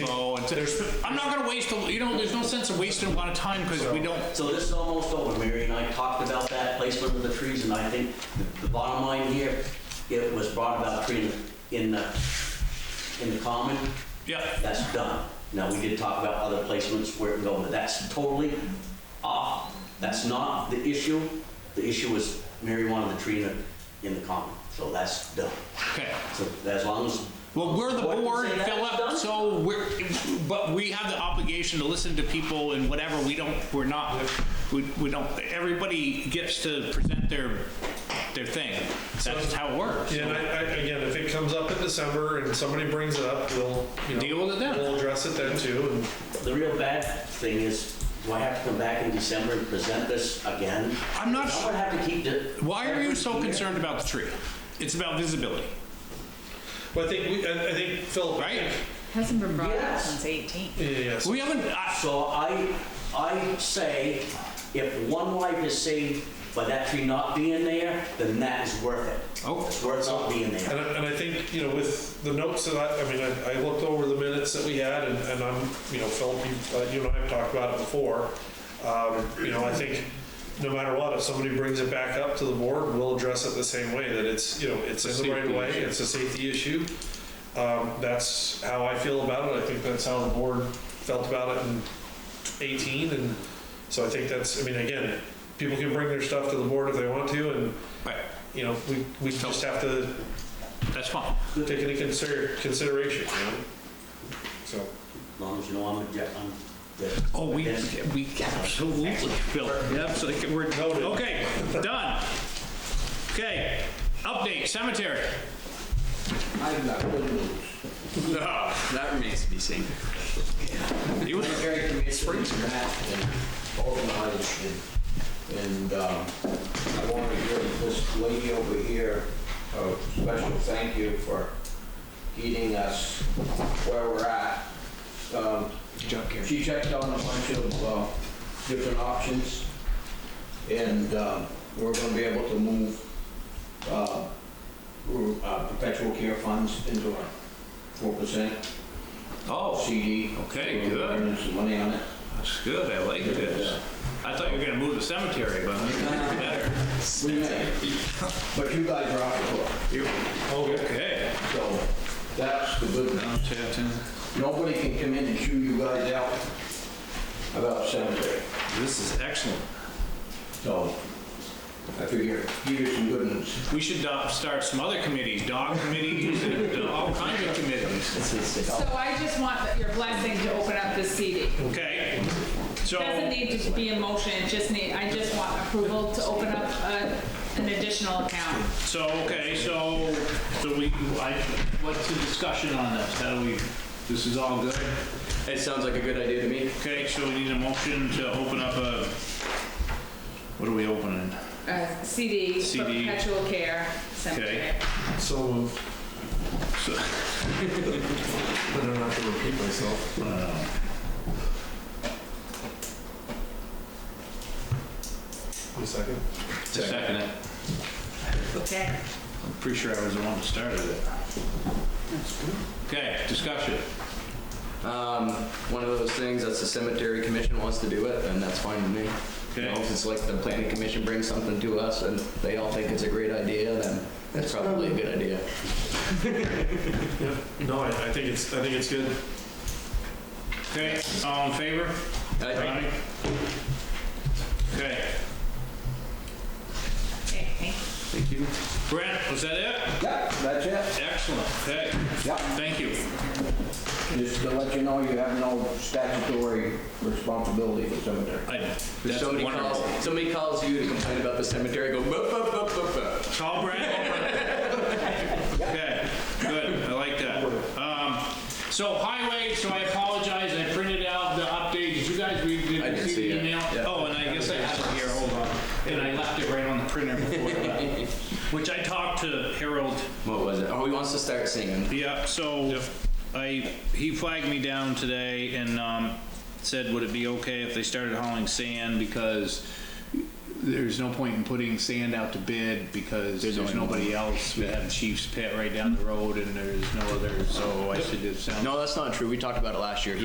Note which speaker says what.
Speaker 1: to there's, I'm not gonna waste, a- you know, there's no sense of wasting a lot of time because we don't,
Speaker 2: So this is almost over, Mary and I talked about that placement of the trees, and I think the- the bottom line here, it was brought about tree in the, in the common,
Speaker 1: yeah.
Speaker 2: that's done. Now, we did talk about other placements where it go, but that's totally off, that's not the issue. The issue is Mary wanted the tree in the, in the common, so that's done.
Speaker 1: Okay.
Speaker 2: So as long as,
Speaker 1: Well, we're the
Speaker 2: What did you
Speaker 1: board,
Speaker 2: say that was
Speaker 1: Philip,
Speaker 2: done?
Speaker 1: so we're, but we have the obligation to listen to people and whatever, we don't, we're not, we, we don't, everybody gets to present their, their thing. That's how it works.
Speaker 3: Yeah, and I, I, again, if it comes up in December and somebody brings it up, we'll, you know.
Speaker 1: Deal with it then.
Speaker 3: We'll address it then too, and
Speaker 2: the real bad thing is, do I have to come back in December and present this again?
Speaker 1: I'm not
Speaker 2: I'm gonna have to keep the.
Speaker 1: Why are you so
Speaker 2: every year.
Speaker 1: concerned about the tree? It's about visibility,
Speaker 3: But I think, we- I I think, Philip. I
Speaker 1: right?
Speaker 3: think-
Speaker 4: Hasn't been brought up
Speaker 2: Yes.
Speaker 4: since 18.
Speaker 3: Yeah, yeah, so
Speaker 1: We haven't, I-
Speaker 2: So I, I say, if one life is saved by that tree not being there, then that is worth it.
Speaker 1: Oh.
Speaker 2: It's worth not being there.
Speaker 3: And I, and I think, you know, with the notes that I, I mean, I, I looked over the minutes that we had and, and I'm, you know, Philip, you, uh, you and I have talked about it before. Um, you know, I think no matter what, if somebody brings it back up to the board, we'll address it the same way, that it's, you know, it's in the right
Speaker 1: Safety
Speaker 3: way,
Speaker 1: issue.
Speaker 3: it's a safety issue. Um, that's how I feel about it. I think that's how the board felt about it in 18. And so I think that's, I mean, again, people can bring their stuff to the board if they want to and,
Speaker 1: right,
Speaker 3: you know, we, we just have to
Speaker 1: that's fine.
Speaker 3: take into consider, consideration, you know? So,
Speaker 2: As long as you know I'm a, je- I'm. the-
Speaker 1: Oh, we,
Speaker 2: against it.
Speaker 1: we absolutely, Phil, absolutely, we're,
Speaker 3: Noted.
Speaker 1: okay, done. Okay, update, cemetery.
Speaker 5: I've got good news.
Speaker 1: No.
Speaker 5: That remains to be seen.
Speaker 1: You-
Speaker 5: Cemetery committee, Springs Matt and organized and, and um, I want to give this lady over here a special thank you for getting us where we're at. Um, She checked on a bunch of uh, different options and um, we're going to be able to move uh, uh, perpetual care funds into our four percent
Speaker 1: Oh,
Speaker 5: CD.
Speaker 1: Okay, good.
Speaker 5: We're earning some money on it.
Speaker 1: that's good, I like this. I thought you were gonna move the cemetery, but that's better.
Speaker 5: We may, but you guys are out for
Speaker 1: Okay,
Speaker 5: it, so that's the good news. Nobody can come in and chew you guys out about cemetery,
Speaker 1: this is excellent.
Speaker 5: so I figure, give you some good news.
Speaker 1: We should uh, start some other committees, dog committees and uh, all kinds of committees.
Speaker 4: So I just want that- your blessing to open up this CD.
Speaker 1: Okay, so.
Speaker 4: Doesn't need to be a motion, it just need, I just want approval to open up a- an additional account.
Speaker 1: So, okay, so, so we, I, what's the discussion on this? How do we, this is all good?
Speaker 6: It sounds like a good idea to me.
Speaker 1: Okay, so we need a motion to open up a, what are we opening?
Speaker 4: A CD, for
Speaker 1: CD.
Speaker 4: perpetual care cemetery.
Speaker 3: so moved.
Speaker 1: So-
Speaker 3: I don't have to repeat myself. One second.
Speaker 1: Second it.
Speaker 4: Okay.
Speaker 1: I'm pretty sure I was the one that started it. Okay, discussion.
Speaker 6: Um, one of those things that's the cemetery commission wants to do it, and that's fine with me. You know,
Speaker 1: Okay.
Speaker 6: if it's like the planning commission brings something to us and they all think it's a great idea, then that's probably a good idea.
Speaker 3: Yeah, no, I, I think it's, I think it's good.
Speaker 1: Okay, all in favor?
Speaker 6: I-
Speaker 1: Okay,
Speaker 4: Okay, thank you.
Speaker 1: Brent, was that it?
Speaker 5: Yeah, that's it,
Speaker 1: Excellent, okay,
Speaker 5: yeah.
Speaker 1: thank you.
Speaker 5: Just to let you know, you have no statutory responsibility for cemetery.
Speaker 1: I-
Speaker 6: If
Speaker 1: That's
Speaker 6: somebody
Speaker 1: wonderful.
Speaker 6: calls, somebody calls you to complain about the cemetery, go, bup, bup, bup, bup, bup.
Speaker 1: Tall Brent? Okay, good, I like that. Um, So highway, so I apologize, I printed out the update, did you guys read,
Speaker 6: I
Speaker 1: did
Speaker 6: did
Speaker 1: you see
Speaker 6: see
Speaker 1: the
Speaker 6: it,
Speaker 1: email?
Speaker 6: yeah.
Speaker 1: Oh, and I guess I have it here, hold on, and I left it right on the printer before I left. Which I talked to Harold,
Speaker 6: What was it? Oh, he wants to start singing.
Speaker 1: yeah, so I, he flagged me down today and um, said, would it be okay if they started hauling sand because there's no point in putting sand out to bid because there's
Speaker 6: only one.
Speaker 1: nobody else. We have Chief's Pit right down the road and there's no other, so I said, it sounds
Speaker 6: No, that's not true. We talked about it last year.